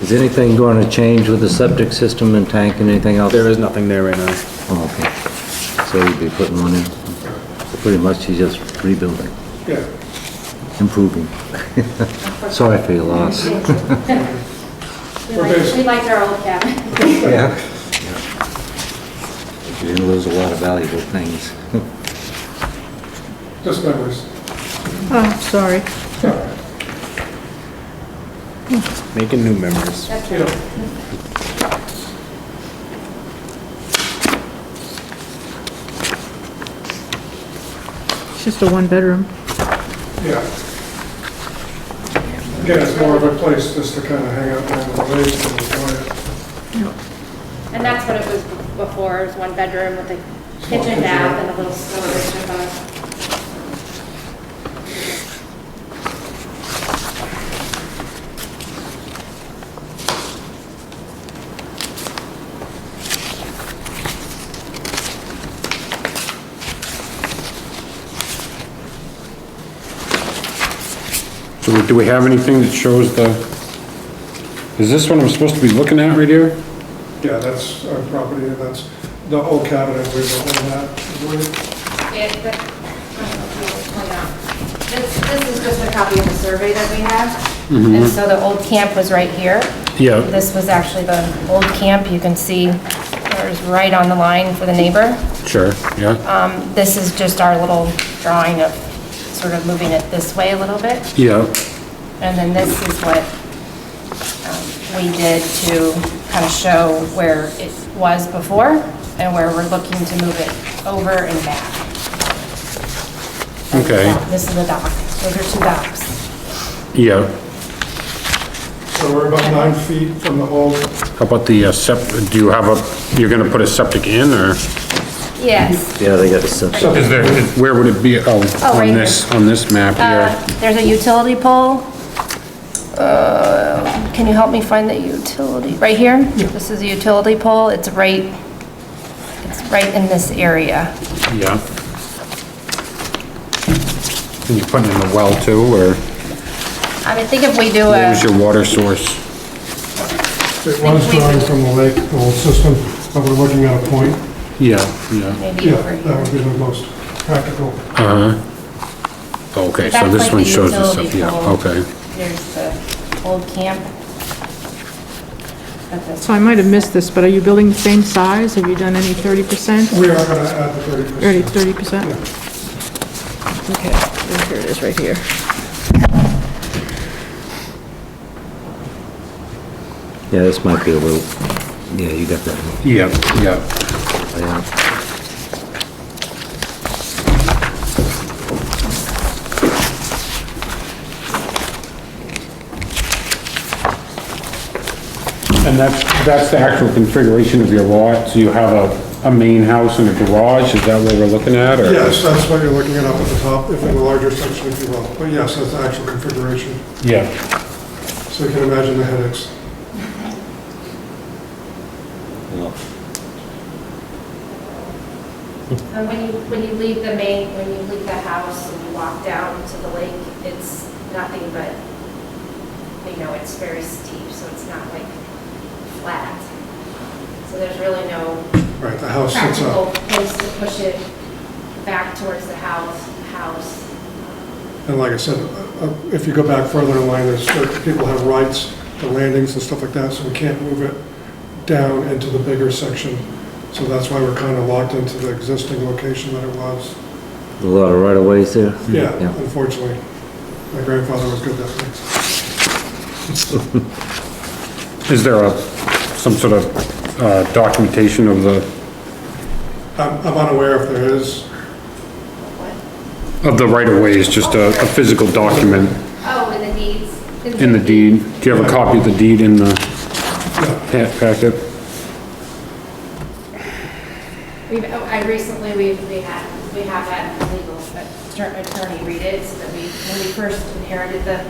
Is anything going to change with the septic system and tank and anything else? There is nothing there right now. Oh, okay. So you'd be putting one in, pretty much you're just rebuilding, Yeah. improving. Sorry for your loss. We liked, we liked our old cabin. Yeah. You didn't lose a lot of valuable things. Just memories. Oh, sorry. Making new memories. That's You right. know, It's just a one-bedroom. yeah. Again, it's more of a place just to kind of hang out and relax and enjoy it. And that's what it was before, it was one bedroom with a kitchen bath and a little storage above. So do we have anything that shows the, is this what I'm supposed to be looking at right here? Yeah, that's our property, and that's the old cabinet we were in that. It, the, I don't know if you want to point out. This, this is just a copy of the survey that we have. And so the old camp was right here. Yeah. This was actually the old camp, you can see, it was right on the line for the neighbor. Sure. Yeah, Um, this is just our little drawing of sort of moving it this way a little bit. yeah, And then this is what um, we did to kind of show where it was before and where we're looking to move it over and back. Okay. This is the dock. Those are two docks. yeah. So we're about nine feet from the old, How about the uh, septic, do you have a, you're gonna put a septic in, or? Mhm. Yes. Yeah, they got a septic. Is there, where would it be? Oh, Oh, right on here. this, on this map here. Uh, There's a utility pole. Uh, Can you help me find the utility? Right here? This is a utility pole. It's right, it's right in this area. Yeah. And you're putting in the well too, or I mean, think if we do a, where's your water source? it was drawing from the lake, the old system, but we're looking at a point. Yeah, yeah. maybe Yeah, over here. that would be the most practical. Okay, so That's this like one the shows the utility septic, yeah, pole. okay. There's the old camp. But this- So I might have missed this, but are you building the same size? Have you done any 30%? We are going to add the thirty percent. Already 30%? Okay, here it is, right here. Yeah, this might be a little, yeah, you got that. one. Yeah, yeah. Yeah. And that's, that's the actual configuration of your lot, so you have a, a main house and a garage, is that what we're looking at, or? Yes, that's what you're looking at up at the top, if in the larger section, if you will. But yes, that's the actual configuration, Yeah, so you can imagine the headaches. And when you, when you leave the main, when you leave the house and you walk down to the lake, it's nothing but, you know, it's very steep, so it's not like flat. So there's really no Right, the house sits practical up. place to push it back towards the house, house. And like I said, uh, uh, if you go back further in line, there's, certain people have rights to landings and stuff like that, so we can't move it down into the bigger section. So that's why we're kind of locked into the existing location that it was. A lot of right-of-ways there? Yeah, Yeah. unfortunately. My grandfather was good that way. is there a, some sort of, uh, documentation of the, I'm I'm unaware if there is, of the right-of-ways, just a, a physical document Oh, in the deeds? in the deed? Do you have a copy of the deed in the pa- packet? We've, oh, I recently, we've, we had, we have had a legal attorney read it, so that we, when we first inherited the